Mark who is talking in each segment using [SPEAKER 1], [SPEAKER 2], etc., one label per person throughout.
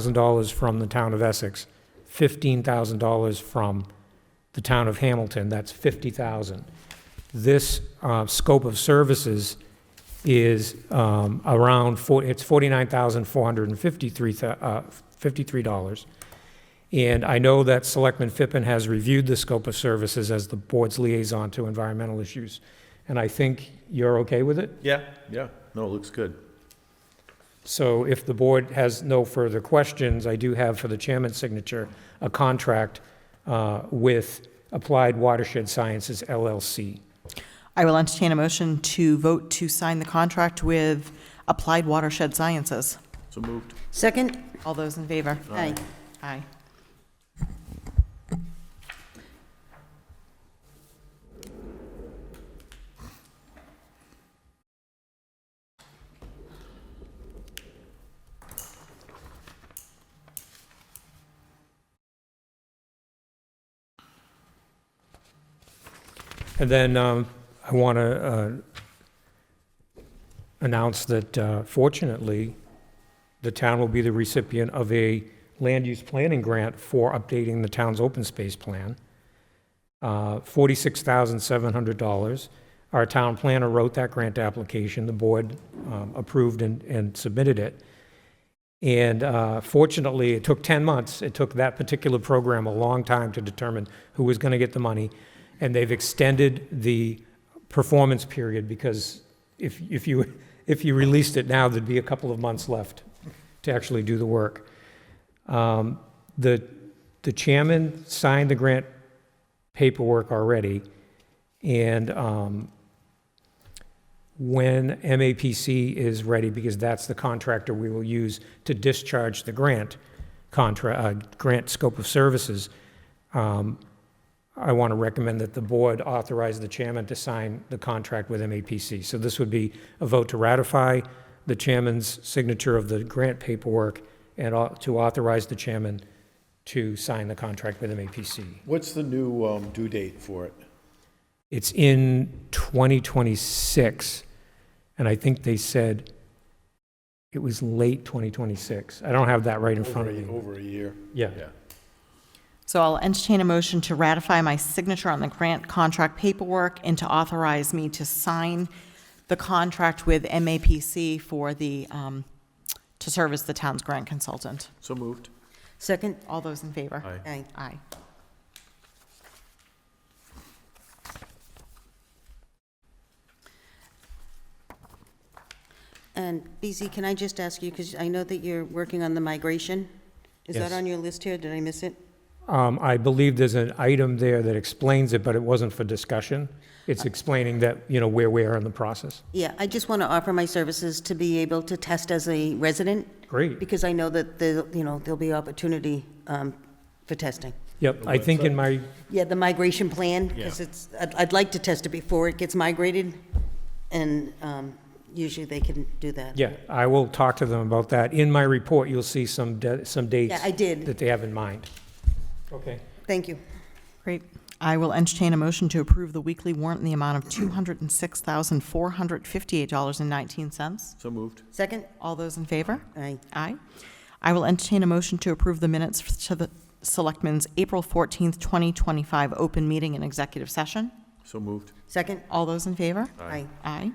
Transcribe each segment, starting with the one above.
[SPEAKER 1] $10,000 from the town of Essex, $15,000 from the town of Hamilton, that's 50,000. This uh, scope of services is um, around, four- it's $49,453, uh, $53. And I know that Selectman Fippen has reviewed the scope of services as the board's liaison to environmental issues, and I think you're okay with it?
[SPEAKER 2] Yeah, yeah. No, it looks good.
[SPEAKER 1] So if the board has no further questions, I do have for the chairman's signature, a contract uh, with Applied Watershed Sciences LLC.
[SPEAKER 3] I will entertain a motion to vote to sign the contract with Applied Watershed Sciences.
[SPEAKER 2] So moved.
[SPEAKER 4] Second?
[SPEAKER 3] All those in favor?
[SPEAKER 4] Aye.
[SPEAKER 3] Aye.
[SPEAKER 1] And then um, I want to announce that uh, fortunately, the town will be the recipient of a land use planning grant for updating the town's open space plan. Uh, $46,700. Our town planner wrote that grant application. The board um, approved and- and submitted it. And uh, fortunately, it took 10 months. It took that particular program a long time to determine who was going to get the money. And they've extended the performance period because if, if you, if you released it now, there'd be a couple of months left to actually do the work. Um, The, the chairman signed the grant paperwork already. And um, when MAPC is ready, because that's the contractor we will use to discharge the grant contra, uh, grant scope of services, um, I want to recommend that the board authorize the chairman to sign the contract with MAPC. So this would be a vote to ratify the chairman's signature of the grant paperwork and au- to authorize the chairman to sign the contract with MAPC.
[SPEAKER 5] What's the new um, due date for it?
[SPEAKER 1] It's in 2026, and I think they said it was late 2026. I don't have that right in front
[SPEAKER 5] Over
[SPEAKER 1] of
[SPEAKER 5] a-
[SPEAKER 1] me.
[SPEAKER 5] Over a year.
[SPEAKER 1] Yeah.
[SPEAKER 3] So I'll entertain a motion to ratify my signature on the grant contract paperwork and to authorize me to sign the contract with MAPC for the, um, to serve as the town's grant consultant.
[SPEAKER 2] So moved.
[SPEAKER 4] Second?
[SPEAKER 3] All those in favor?
[SPEAKER 2] Aye.
[SPEAKER 4] Aye.
[SPEAKER 3] Aye.
[SPEAKER 4] And BZ, can I just ask you, because I know that you're working on the migration? Is
[SPEAKER 1] Yes.
[SPEAKER 4] that on your list here? Did I miss it?
[SPEAKER 1] Um, I believe there's an item there that explains it, but it wasn't for discussion.
[SPEAKER 4] Uh,
[SPEAKER 1] It's explaining that, you know, where we are in the process.
[SPEAKER 4] Yeah, I just want to offer my services to be able to test as a resident,
[SPEAKER 1] Great.
[SPEAKER 4] because I know that, the you know, there'll be opportunity um, for testing.
[SPEAKER 1] Yep, I think in my,
[SPEAKER 4] Yeah, the migration plan, because it's, I'd, I'd like to test it before it gets migrated, and um, usually they can do that.
[SPEAKER 1] yeah, I will talk to them about that. In my report, you'll see some, de- some dates.
[SPEAKER 4] Yeah, I did.
[SPEAKER 1] That they have in mind. Okay.
[SPEAKER 4] Thank you.
[SPEAKER 3] Great. I will entertain a motion to approve the weekly warrant in the amount of $206,458.19.
[SPEAKER 2] So moved.
[SPEAKER 4] Second?
[SPEAKER 3] All those in favor?
[SPEAKER 4] Aye.
[SPEAKER 3] Aye. I will entertain a motion to approve the minutes f- to the Selectmen's April 14th, 2025 open meeting and executive session.
[SPEAKER 2] So moved.
[SPEAKER 4] Second?
[SPEAKER 3] All those in favor?
[SPEAKER 4] Aye.
[SPEAKER 3] Aye.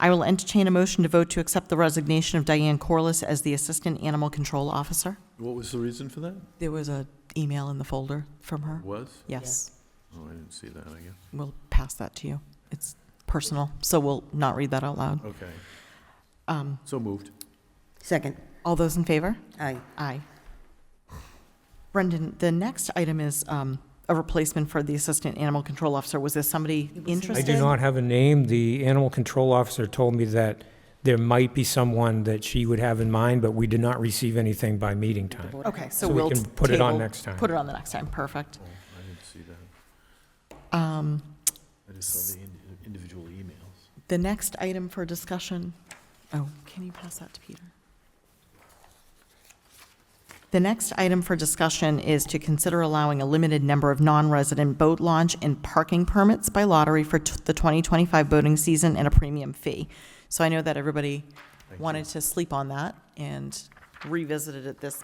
[SPEAKER 3] I will entertain a motion to vote to accept the resignation of Diane Corliss as the Assistant Animal Control Officer.
[SPEAKER 2] What was the reason for that?
[SPEAKER 3] There was a email in the folder from her.
[SPEAKER 2] Was?
[SPEAKER 3] Yes.
[SPEAKER 2] Oh, I didn't see that, I guess.
[SPEAKER 3] We'll pass that to you. It's personal, so we'll not read that out loud.
[SPEAKER 2] Okay.
[SPEAKER 3] Um,
[SPEAKER 2] So moved.
[SPEAKER 4] Second?
[SPEAKER 3] All those in favor?
[SPEAKER 4] Aye.
[SPEAKER 3] Aye. Brendan, the next item is um, a replacement for the Assistant Animal Control Officer. Was there somebody
[SPEAKER 1] I
[SPEAKER 3] interested?
[SPEAKER 1] do not have a name. The animal control officer told me that there might be someone that she would have in mind, but we did not receive anything by meeting time.
[SPEAKER 3] Okay, so
[SPEAKER 1] So we
[SPEAKER 3] we'll.
[SPEAKER 1] can put it on
[SPEAKER 3] table-
[SPEAKER 1] next time.
[SPEAKER 3] Put it on the next time, perfect.
[SPEAKER 2] Oh, I didn't see that.
[SPEAKER 3] Um,
[SPEAKER 2] I just saw the indi- individual emails.
[SPEAKER 3] The next item for discussion, oh, can you pass that to Peter? The next item for discussion is to consider allowing a limited number of non-resident boat launch and parking permits by lottery for t- the 2025 boating season and a premium fee. So I know that everybody wanted to sleep on that, and revisited at this